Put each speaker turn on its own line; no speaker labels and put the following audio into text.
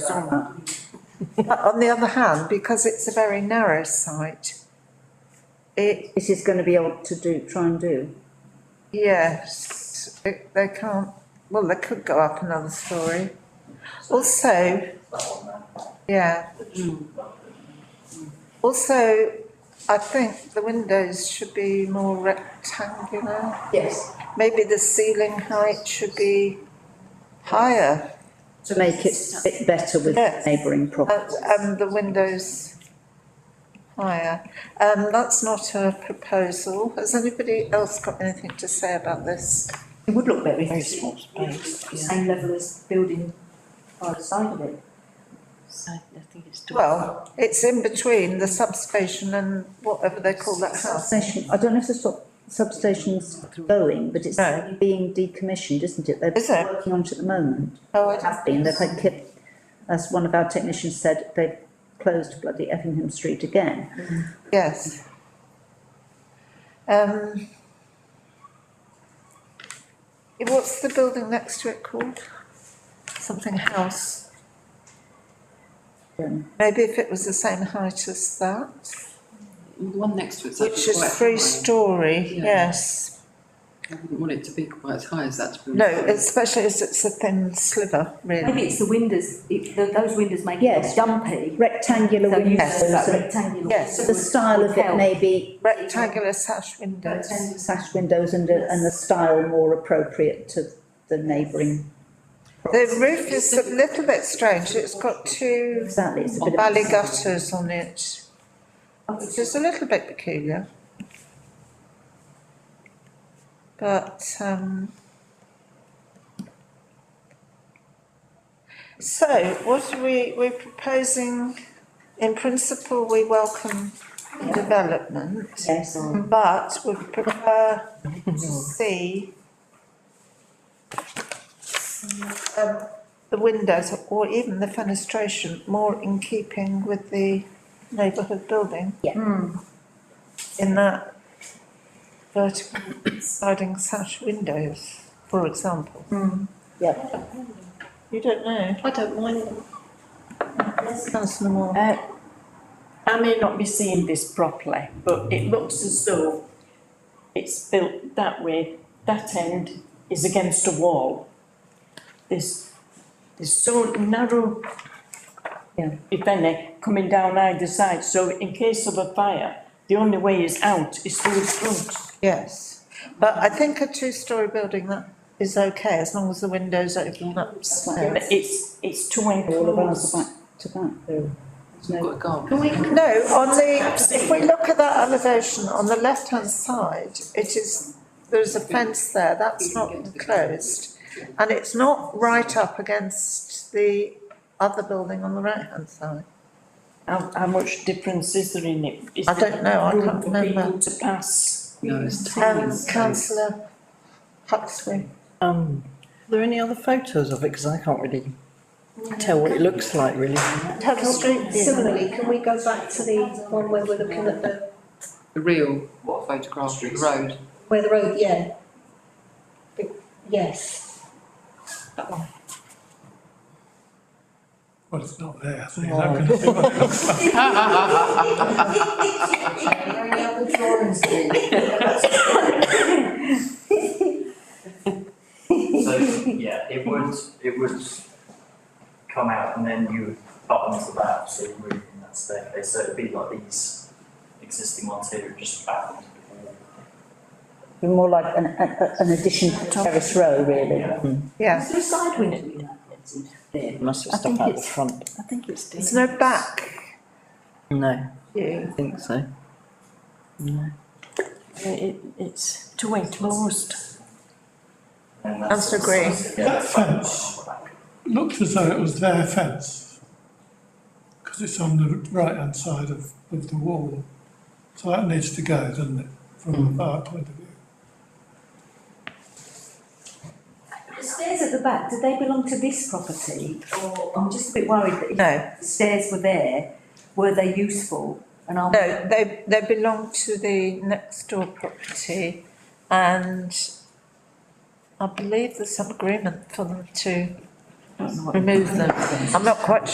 Uh,
on that. On the other hand, because it's a very narrow site, it,
This is going to be able to do, try and do.
yes, it- they can't, well, they could go up another story. Also, yeah. Also, I think the windows should be more rectangular.
Yes.
Maybe the ceiling height should be higher,
To make it fit better with
Yes.
neighbouring
and,
properties.
and um, the windows higher. Um, that's not a proposal. Has anybody else got anything to say about this?
It would look better if it was the same level as the building by the side of it.
I I think it's too.
Well, it's in between the substation and whatever they call that house.
Substation, I don't know if the sub- substation's going, but it's
No.
being decommissioned, isn't it? They're
Is it?
Working on it at the moment.
Oh, I
It has been, they've had kip, as one of our technicians said, they've closed bloody Effingham Street again.
Yes. Um. eh, What's the building next to it called? Something house.
Um,
Maybe if it was the same height as that,
The one next to it's
which
actually quite
is three
high.
storey,
Yeah.
yes.
I wouldn't want it to be quite as high as that, to be
No,
honest.
especially as it's a thin sliver, really.
Maybe it's the windows, it, th those windows make
Yes.
it dumpy.
Rectangular
So you
windows,
have that
so
rectangular.
Yes.
so the style of it may be
Rectangular sash windows.
sash windows and, a- and the style more appropriate to the neighbouring.
The roof is a little bit strange, it's got two
Exactly, it's a bit of.
valley gutters on it, which is a little bit peculiar. But, um. So what are we, we're proposing, in principle, we welcome development,
Yes,
but we prefer to see um, the windows or even the fenestration more in keeping with the neighbourhood building
Hmm.
in that vertical sliding sash windows, for example.
yeah.
You don't know?
Hmm. I don't mind them.
Councillor Moore.
Uh, I may not be seeing this properly, but it looks as though it's built that way, that end is against a wall. There's, there's so narrow,
Yeah.
if any, coming down either side, so in case of a fire, the only way is out is through the front.
Yes, but I think a two-storey building that is okay as long as the windows open upstairs.
But it's, it's too
All of ours
enclosed.
are back to back, though. There's
We've got
no-
a garden.
Can we,
No, on the, if we look at that elevation, on the left-hand side, it is, there's a fence there, that's not enclosed. And it's not right up against the other building on the right-hand side.
how, how much difference is there in it? Is
I don't know, I
there room
can't
for
remember.
people To pass.
No, it's tiny.
Um, councillor Huxley.
Um, are there any other photos of it? Because I can't really tell what it looks like really.
Have a street view.
Similarly, can we go back to the one where we're looking at the,
The real, what, photograph of the road.
where the road, yeah. Be- Yes. That one.
Well, it's not there, so you're not gonna see what it looks like.
So, yeah, it would, it would come out and then you would butt onto that, so you move in that staircase, so it'd be like these existing ones here, just back onto the wall.
Be More like an, a- a- an addition to terrace row, really.
Yeah,
Is there a side window?
There.
Must
I
have stuff
think
out the
it's-
front.
I think it's this.
there's no back
No, I
view.
think so.
Uh, It, it's too enclosed.
And that's-
Councillor Green.
Yeah,
That
that's back
fence.
on the back.
Looked as though it was their fence, because it's on the right-hand side of, of the wall. So that needs to go, doesn't it, from our point of view?
The stairs at the back, do they belong to this property? Or, I'm just a bit worried that if
No,
the stairs were there, were they useful? And I'm.
no, they, they belong to the next door property and I believe there's some agreement for them to remove them. I'm not quite sure.